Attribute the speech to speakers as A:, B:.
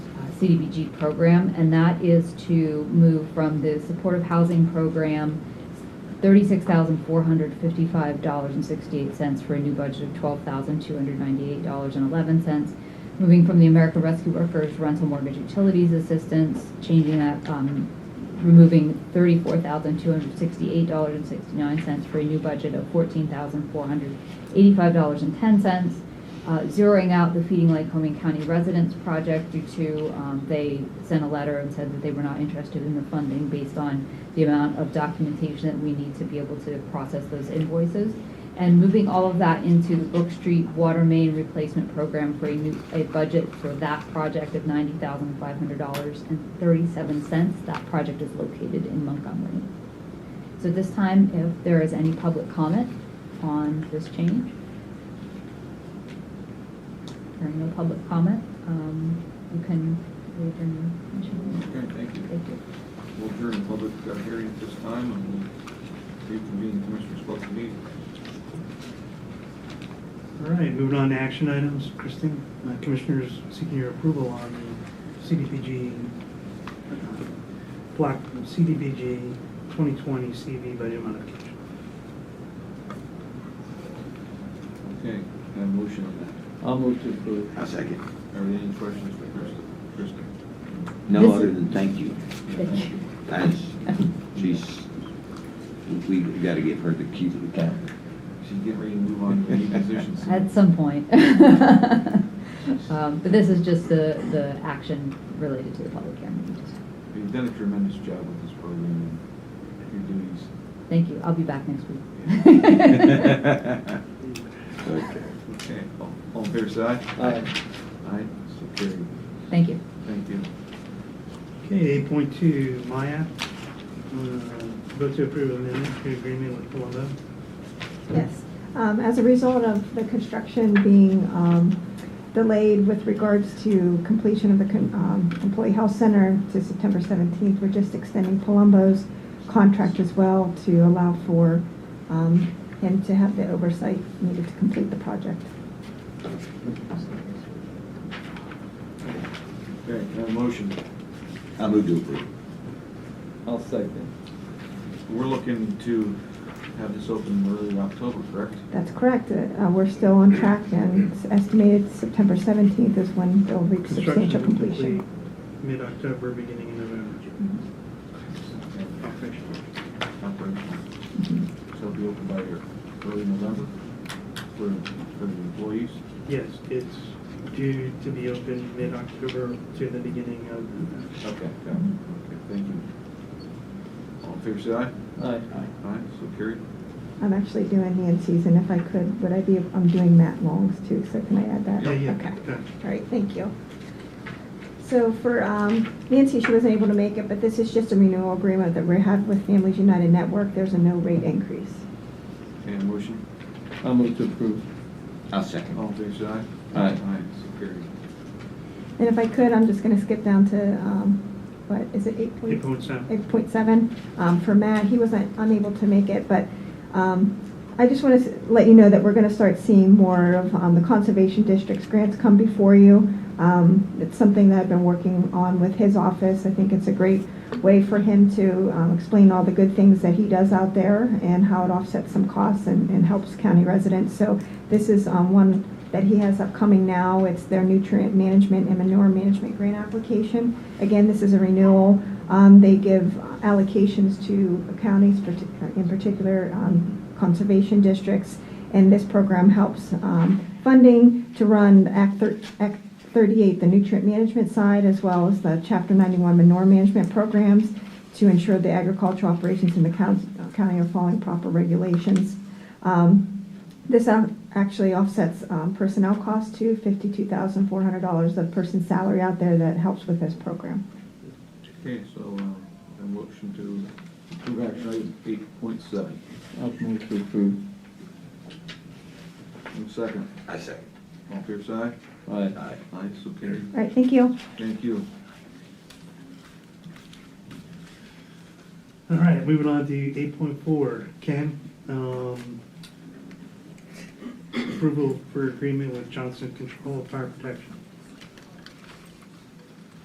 A: uh, CDBG program, and that is to move from the supportive housing program, thirty-six thousand four hundred fifty-five dollars and sixty-eight cents for a new budget of twelve thousand two hundred ninety-eight dollars and eleven cents. Moving from the American Rescue Workers Rental Mortgage Utilities Assistance, changing that, um, removing thirty-four thousand two hundred sixty-eight dollars and sixty-nine cents for a new budget of fourteen thousand four hundred eighty-five dollars and ten cents uh, zeroing out the Feeding Lycoming County Residents Project due to, um, they sent a letter and said that they were not interested in the funding based on the amount of documentation that we need to be able to process those invoices. And moving all of that into the Brook Street Water Main Replacement Program for a new, a budget for that project of ninety thousand five hundred dollars and thirty-seven cents. That project is located in Montgomery. So at this time, if there is any public comment on this change? There are no public comment. Um, You can leave your motion.
B: Okay, thank you.
A: Thank you.
B: We'll adjourn the public uh, hearing at this time and we'll reconvene the commissioners' public meeting.
C: All right, moving on to action items. Christine, uh, Commissioners seeking your approval on the CDBG, uh, block CDBG 2020 CV budget modification.
B: Okay, can I have a motion on that.
D: I'll move to approve.
E: A second.
B: Are there any questions for Krista? Krista?
E: No
A: This-
E: other than thank you.
A: Thank you.
E: That's, she's, we got to give her the keys of the county.
B: She's getting ready to move on to a new position soon.
A: At some point. Um, But this is just the, the action related to the public hearing.
B: You've done a tremendous job with this program and your duties.
A: Thank you. I'll be back next week.
E: Okay.
B: Okay, all- all fair side?
D: Aye.
B: Aye, so carried.
A: Thank you.
B: Thank you.
C: Okay, 8.2, Maya, uh, vote to approve amendment to agreement with Palumbo.
F: Yes. Um, As a result of the construction being um, delayed with regards to completion of the con- um, Employee Health Center to September 17th, we're just extending Palumbo's contract as well to allow for um, him to have the oversight needed to complete the project.
B: Okay, can I have a motion?
E: I move to approve.
D: I'll second.
B: We're looking to have this open early October, correct?
F: That's correct. Uh, We're still on track, and it's estimated September 17th is when they'll reach substantial
C: Construction complete
F: completion. Mm-hmm.
C: mid-October, beginning in November. Operational.
B: Operational. So
F: Mm-hmm.
B: it'll be open by your early November for, for the employees?
C: Yes, it's due to be open mid-October to the beginning of November.
B: Okay, got it. Okay, thank you. All in favor, say aye.
D: Aye.
B: Aye, so carried.
F: I'm actually doing Nancy's, and if I could, would I be, I'm doing Matt Long's too, so can I add that?
C: Yeah, yeah,
F: Okay.
C: yeah.
F: All right, thank you. So for um, Nancy, she wasn't able to make it, but this is just a renewal agreement that we have with Families United Network. There's a no rate increase.
B: Okay, a motion?
D: I'll move to approve.
E: I'll
B: All
E: second.
B: in favor, say aye.
E: Aye.
B: Aye, so carried.
F: And if I could, I'm just going to skip down to, um, what, is it eight point?
C: 8.7.
F: 8.7 um, for Matt. He wasn't unable to make it, but um, I just want to let you know that we're going to start seeing more of um, the Conservation District's grants come before you. Um, It's something that I've been working on with his office. I think it's a great way for him to um, explain all the good things that he does out there and how it offsets some costs and and helps county residents. So this is um, one that he has upcoming now. It's their nutrient management and manure management grant application. Again, this is a renewal. Um, They give allocations to counties, parti- uh, in particular um, conservation districts, and this program helps um, funding to run Act thir- Act 38, the nutrient management side, as well as the Chapter 91 manure management programs to ensure the agricultural operations in the coun- county are following proper regulations. Um, this ac- actually offsets um, personnel costs too, fifty-two thousand four hundred dollars of person's salary out there that helps with this program.
B: Okay, so, um, a motion to approve action item eight point seven.
D: I'll move to approve.
B: second.
E: I second.
B: All in favor, say aye.
D: Aye.
E: Aye.
B: Aye, so carried.
F: All right, thank you.
B: Thank you.
C: All right, moving on to eight point four, Ken. um, Approval for agreement with Johnson Control of Fire Protection.